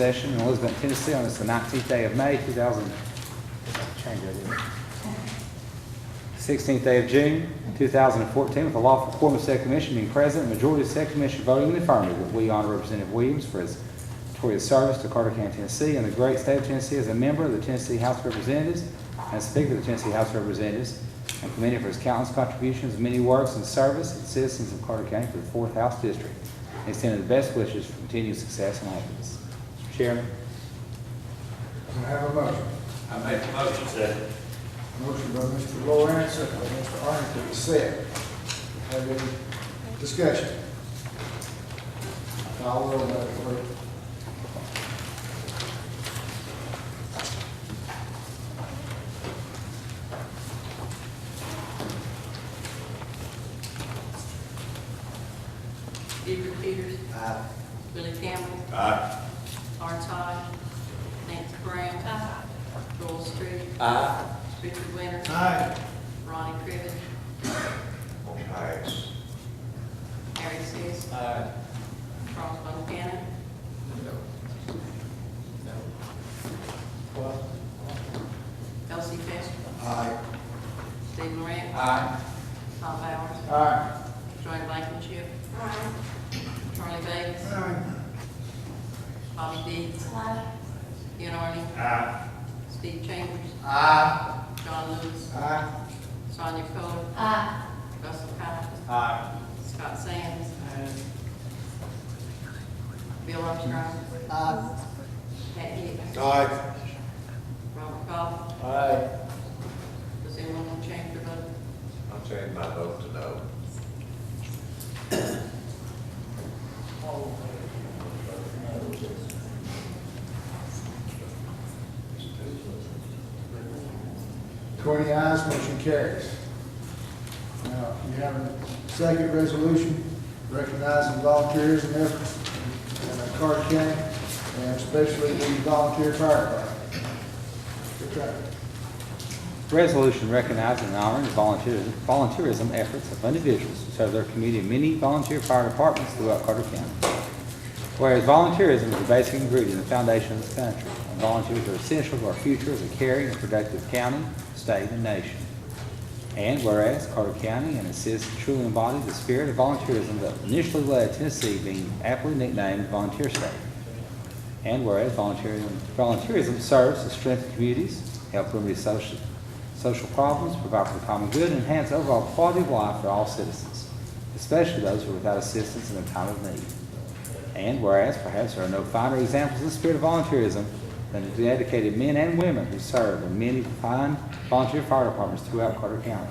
session in Elizabeth, Tennessee on this the nineteenth day of May, two thousand, change that, didn't I? sixteenth day of June, two thousand and fourteen, with a lawful quorum of said commission being present, and majority of said commission voting in the affirmative, that we honor Representative Williams for his notorious service to Carter County, Tennessee, and the great state of Tennessee as a member of the Tennessee House of Representatives and Speaker of the Tennessee House of Representatives, and commended for his countless contributions, many works, and service to the citizens of Carter County for the Fourth House District, and extended the best wishes for continued success and happiness. Mr. Chairman, Can I have a motion? I make the motion, second. Motion by Mr. Lawrence, second by Mr. Arrington, to set. Have any discussion? Call roll, Madam Clerk. Edward Peters. Aye. Billy Campbell. Aye. Art Todd. Nancy Brown. Aye. Joel Street. Aye. Richard Winters. Aye. Ronnie Crivitt. Motion carries. Harry Seas. Aye. Charles Montana. Elsie Pester. Aye. Steve Moran. Aye. Tom Bowers. Aye. Johnny Blankenship. Charlie Davis. Bobby Dees. Ian Arden. Aye. Steve Chambers. Aye. John Lewis. Aye. Sonia Coler. Aye. Russell Cott. Aye. Scott Sands. Bill Armstrong. Pat Hicks. Aye. Robert Goff. Aye. Does anyone want to change their vote? I'll change my vote to no. Twenty ayes, motion carries. Now, you have a second resolution recognizing volunteerism efforts in uh, Carter County, and especially the volunteer firefighter. Good job. Resolution recognizing and honoring the volunteer- volunteerism efforts of individuals to serve their community in many volunteer fire departments throughout Carter County. Whereas volunteerism is the basic ingredient and foundation of this country, and volunteers are essential to our future as a caring and productive county, state, and nation. And whereas Carter County and its citizens truly embody the spirit of volunteerism that initially led Tennessee being aptly nicknamed Volunteer State. And whereas volunteerism, volunteerism serves to strengthen communities, help remedy social, social problems, provide for the common good, and enhance overall quality of life for all citizens, especially those who are without assistance in a time of need. And whereas perhaps there are no finer examples of the spirit of volunteerism than the dedicated men and women who serve in many fine volunteer fire departments throughout Carter County.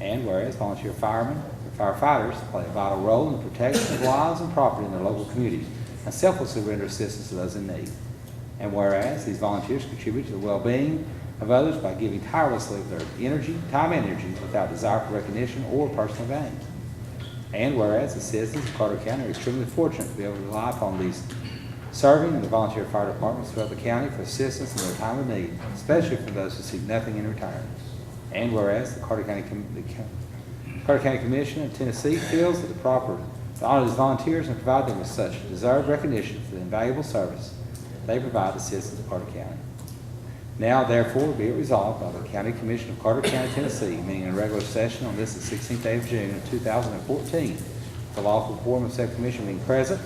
And whereas volunteer firemen and firefighters play a vital role in the protection of lives and property in their local community and selflessly render assistance to those in need. And whereas these volunteers contribute to the well-being of others by giving tirelessly of their energy, time and energy without desire for recognition or personal gain. And whereas the citizens of Carter County are extremely fortunate to be able to rely upon these serving in the volunteer fire departments throughout the county for assistance in their time of need, especially for those who see nothing in retirement. And whereas the Carter County, Com- the Co- Carter County Commission of Tennessee feels that the proper to honor these volunteers and provide them with such deserved recognition for the invaluable service they provide the citizens of Carter County. Now therefore be it resolved by the County Commission of Carter County, Tennessee, meeting in regular session on this the sixteenth day of June of two thousand and fourteen. The lawful quorum of said commission being present,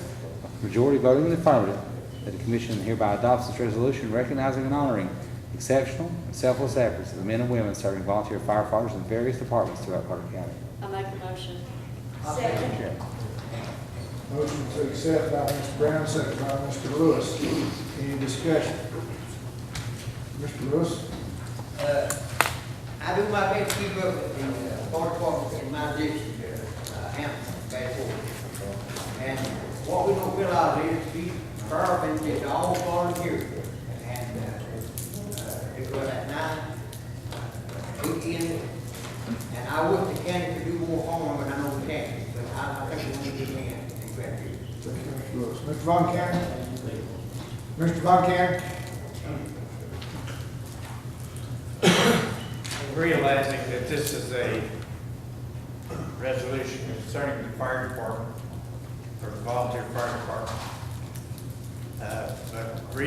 majority voting in the affirmative, that the commission hereby adopts this resolution recognizing and honoring exceptional and selfless efforts of the men and women serving volunteer firefighters in various departments throughout Carter County. I make a motion. Second. Motion to accept by Mr. Brown, second by Mr. Lewis. Any discussion? Mr. Lewis? Uh, I do my best to keep up with the uh, fire department in my district, uh, Hampton, Bedford. And what we don't realize is these fire departments is all volunteer. And, uh, uh, it was at night, uh, weekend, and I wish the county could do more harm, but I know we can't. But I, I think we need to get in and grab it. Second by Mr. Lewis. Mr. Von Cannon? Mr. Von Cannon? realizing that this is a resolution concerning the fire department, or the volunteer fire department. uh, a re-